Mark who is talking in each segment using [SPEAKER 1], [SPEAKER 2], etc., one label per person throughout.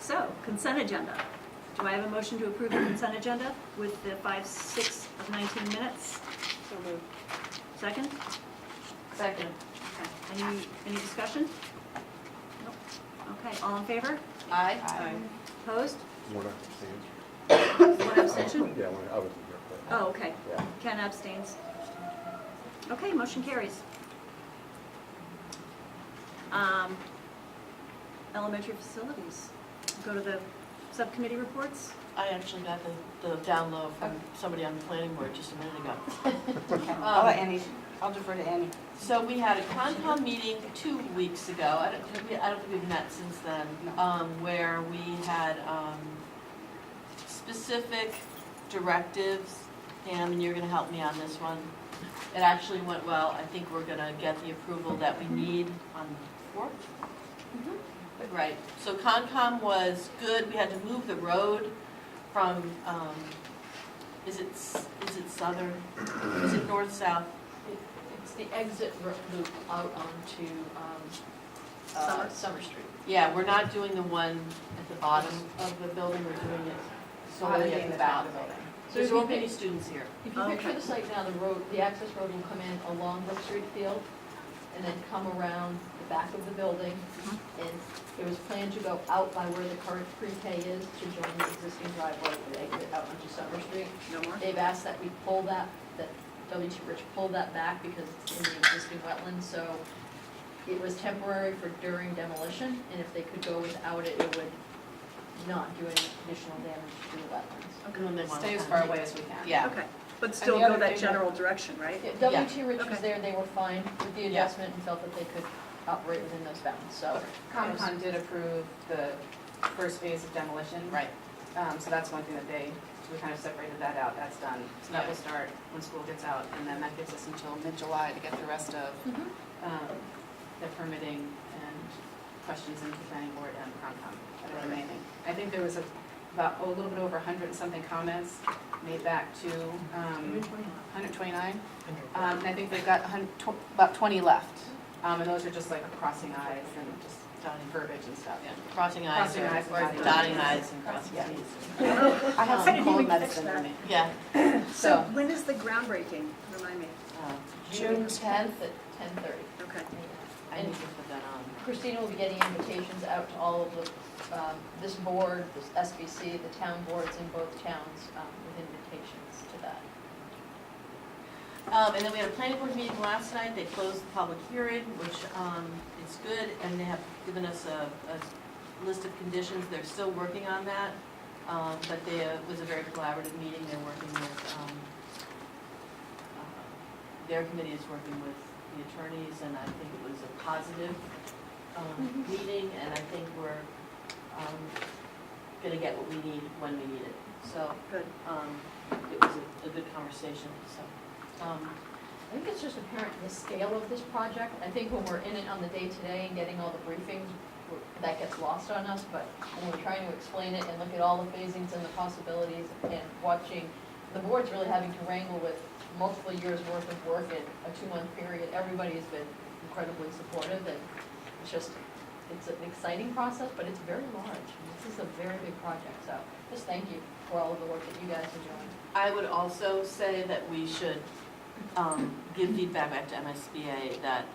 [SPEAKER 1] So, consent agenda. Do I have a motion to approve the consent agenda with the five, six of 19 minutes?
[SPEAKER 2] So moved.
[SPEAKER 1] Second?
[SPEAKER 2] Second.
[SPEAKER 1] Okay. Any, any discussion? Nope. Okay, all in favor?
[SPEAKER 2] Aye.
[SPEAKER 1] Opposed?
[SPEAKER 3] We're not abstaining.
[SPEAKER 1] One abstention?
[SPEAKER 3] Yeah, when- I wasn't here for that.
[SPEAKER 1] Oh, okay.
[SPEAKER 3] Yeah.
[SPEAKER 1] Ken abstains. Okay, motion carries. Um, Elementary facilities. Go to the subcommittee reports.
[SPEAKER 4] I actually got the, the down low from somebody on the planning board just a minute ago.
[SPEAKER 2] Okay.
[SPEAKER 4] I'll let
[SPEAKER 2] Annie, I'll defer to Annie.
[SPEAKER 4] So we had a Concom meeting two weeks ago, I don't, have we- I don't think we've met since then, um, where we had, um, specific directives, Pam, and you're gonna help me on this one. It actually went well, I think we're gonna get the approval that we need on the fourth. Right, so Concom was good, we had to move the road from, um, is it, s- is it southern, is it north-south?
[SPEAKER 2] It's the exit ro- loop out onto um,
[SPEAKER 1] Summer.
[SPEAKER 2] uh, Summer Street.
[SPEAKER 4] Yeah, we're not doing the one at the bottom of the building, we're doing it solely at the back.
[SPEAKER 2] So
[SPEAKER 4] There
[SPEAKER 2] if you
[SPEAKER 4] won't be any
[SPEAKER 2] pic-
[SPEAKER 4] students here.
[SPEAKER 2] if you picture
[SPEAKER 1] Okay.
[SPEAKER 2] the site now, the road, the access road will come in along Brook Street Field and then come around the back of the building. And it was planned to go out by where the current pre-K is to join the existing driveway that exit out onto Summer Street.
[SPEAKER 1] No more?
[SPEAKER 2] They've asked that we pull that, that W T Rich pull that back because it's in the existing wetland, so it was temporary for during demolition, and if they could go without it, it would not do any additional damage to the wetlands.
[SPEAKER 4] And then
[SPEAKER 5] Stay as
[SPEAKER 4] one-
[SPEAKER 5] far away as we can.
[SPEAKER 4] Yeah,
[SPEAKER 1] Okay, but still
[SPEAKER 5] the
[SPEAKER 1] go
[SPEAKER 5] other
[SPEAKER 1] that
[SPEAKER 5] thing-
[SPEAKER 1] general direction, right?
[SPEAKER 4] Yeah.
[SPEAKER 2] W T Rich
[SPEAKER 1] Okay.
[SPEAKER 2] was there, they were fine with the
[SPEAKER 4] Yeah.
[SPEAKER 2] adjustment and felt that they could operate within those bounds, so.
[SPEAKER 5] Concom did approve the first phase of demolition.
[SPEAKER 4] right.
[SPEAKER 5] Um, so that's one thing that they, we kind of separated that out, that's done. So that will start when school gets out, and then that gives us until mid-July to get the rest of,
[SPEAKER 2] Mhm.
[SPEAKER 5] um, the permitting and questions into planning board and Concom that are remaining. I think there was a- about, oh, a little bit over hundred and something comments made back to, um, hundred twenty-nine? Um, and I think they've got a hun- tw- about twenty left, um, and those are just like crossing eyes and just
[SPEAKER 4] Dotting-
[SPEAKER 5] verbiage and stuff.
[SPEAKER 4] Crossing eyes
[SPEAKER 5] Crossing
[SPEAKER 4] or
[SPEAKER 5] eyes and
[SPEAKER 4] or
[SPEAKER 5] dotting
[SPEAKER 4] dotting
[SPEAKER 5] eyes.
[SPEAKER 4] eyes and crossing
[SPEAKER 5] Yeah.
[SPEAKER 4] Ts.
[SPEAKER 5] I have
[SPEAKER 1] I
[SPEAKER 5] some
[SPEAKER 1] didn't
[SPEAKER 5] cold
[SPEAKER 1] even catch
[SPEAKER 5] Um, medicine
[SPEAKER 1] that.
[SPEAKER 5] in me,
[SPEAKER 4] Yeah.
[SPEAKER 1] So
[SPEAKER 5] so,
[SPEAKER 1] when is the groundbreaking? Remind me.
[SPEAKER 4] um,
[SPEAKER 2] June tenth at ten thirty.
[SPEAKER 1] Okay.
[SPEAKER 4] I need to put that on.
[SPEAKER 2] Christina will be getting invitations out to all of the, um, this board, this SBC, the town boards in both towns um, with invitations to that.
[SPEAKER 4] Um, and then we had a planning board meeting last night, they closed the public hearing, which, um, is good, and they have given us a, a list of conditions, they're still working on that. Um, but they, it was a very collaborative meeting, they're working with, um, uh, their committee is working with the attorneys, and I think it was a positive, um, meeting, and I think we're, um, gonna get what we need when we need it, so,
[SPEAKER 1] Good.
[SPEAKER 4] um, it was a, a good conversation, so. Um,
[SPEAKER 2] I think it's just apparent the scale of this project. I think when we're in it on the day-to-day and getting all the briefings, we're- that gets lost on us, but when we're trying to explain it and look at all the phasings and the possibilities and watching, the board's really having to wrangle with multiple years' worth of work in a two-month period. Everybody's been incredibly supportive and it's just, it's an exciting process, but it's very large. This is a very big project, so just thank you for all of the work that you guys are doing.
[SPEAKER 4] I would also say that we should um, give feedback back to MSBA that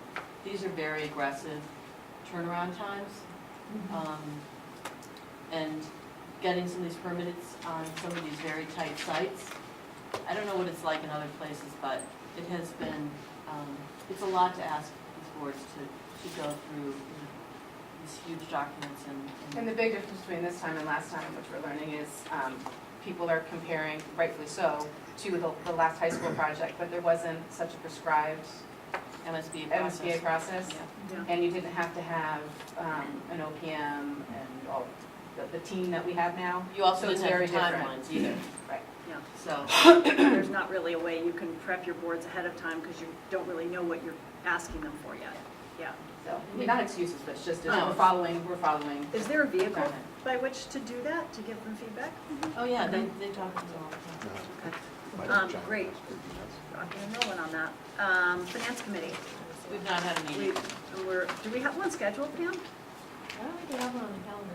[SPEAKER 4] these are very aggressive turnaround times.
[SPEAKER 5] Mm-hmm.
[SPEAKER 4] Um, And getting some of these permits on some of these very tight sites. I don't know what it's like in other places, but it has been, um, it's a lot to ask these boards to, to go through you know, these huge documents and-
[SPEAKER 5] and
[SPEAKER 4] and,
[SPEAKER 5] the big difference between this time and last time, which we're learning is, um, people are comparing, rightfully so, to the, the last high school project, but there wasn't such a prescribed
[SPEAKER 4] MSBA process.
[SPEAKER 5] MSBA process.
[SPEAKER 4] Yeah.
[SPEAKER 1] Yeah.
[SPEAKER 5] And you didn't have to have, um, an OPM and all, the, the team that we have now.
[SPEAKER 4] You also
[SPEAKER 5] So it's
[SPEAKER 4] didn't have the
[SPEAKER 5] very different.
[SPEAKER 4] timelines either,
[SPEAKER 5] Right.
[SPEAKER 4] so.
[SPEAKER 1] There's not really a way you can prep your boards ahead of time because you don't really know what you're asking them for yet. Yeah.
[SPEAKER 5] So, I mean, not excuses, but it's just,
[SPEAKER 4] No.
[SPEAKER 5] we're following, we're following.
[SPEAKER 1] Is there a vehicle
[SPEAKER 5] Got it.
[SPEAKER 1] by which to do that, to give them feedback?
[SPEAKER 4] Oh, yeah, they, they talk to us all the time.
[SPEAKER 3] No,
[SPEAKER 1] Oh, Okay.
[SPEAKER 3] I
[SPEAKER 1] Um,
[SPEAKER 3] don't-
[SPEAKER 1] great. Rocking and rolling on that. Um, Finance committee.
[SPEAKER 4] We've not had a meeting.
[SPEAKER 1] We, we're, do we have one scheduled, Pam?
[SPEAKER 2] I don't think we have one on the calendar.